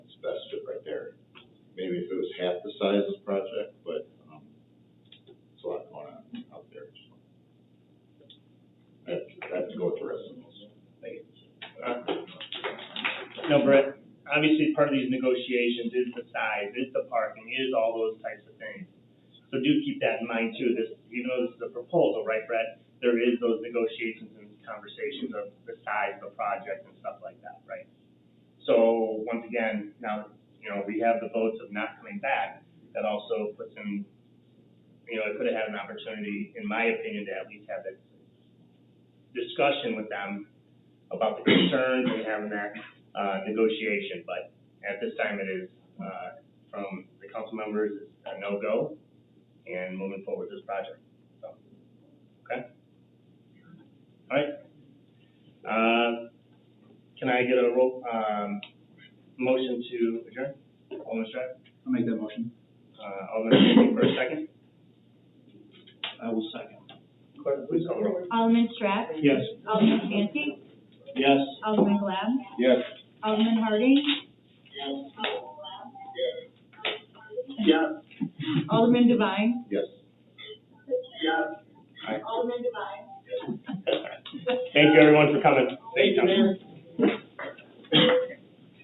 maybe if it was half the size of the project, but, um, it's a lot going on out there, so. I have to, I have to go with the rest of those. No, Brett, obviously part of these negotiations is the size, is the parking, is all those types of things. So do keep that in mind too, this, you know, this is a proposal, right, Brett? There is those negotiations and conversations of the size of the project and stuff like that, right? So once again, now, you know, we have the votes of not coming back, that also puts in, you know, I could have had an opportunity, in my opinion, to at least have that discussion with them about the concerns and having that uh, negotiation, but at this time it is, uh, from the council members, it's a no-go, and moving forward with this project, so, okay? All right. Uh, can I get a roll, um, motion to adjourn? Alderman Stratt, I'll make that motion. uh, Alderman Santee for a second. I will second. Clerk, please call the roll. Alderman Strack, Yes. Alderman Santi, Yes. Alderman Glab, Yes. Alderman Harding, Yes. Alderman Devine, Yes. Alderman Devine. Thank you, everyone, for coming. Thank you, Mayor.